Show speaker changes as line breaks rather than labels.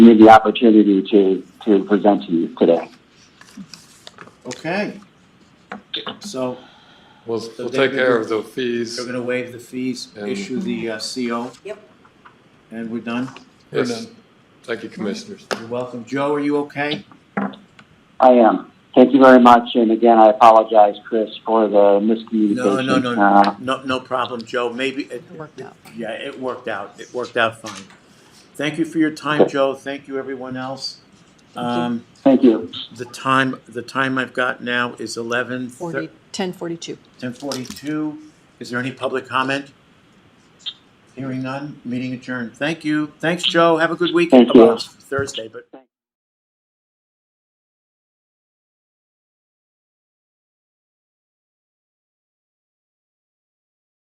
me the opportunity to, to present to you today.
Okay. So
We'll,
So
we'll
they're
take care
gonna-
of the fees.
they're gonna waive the fees,
And-
issue the uh, CO?
Yep.
And we're done?
Yes. Thank you, commissioners.
You're welcome. Joe, are you okay?
I am. Thank you very much. And again, I apologize, Chris, for the miscommunication.
No, no, no,
Uh,
no, no, no problem, Joe. Maybe, it-
It worked out.
yeah, it worked out. It worked out fine. Thank you for your time, Joe. Thank you, everyone else. Um,
Thank you.
the time, the time I've got now is eleven
Forty, ten forty-two.
ten forty-two. Is there any public comment? Hearing none, meeting adjourned. Thank you. Thanks, Joe. Have a good weekend.
Thank you.
Well, it's Thursday, but.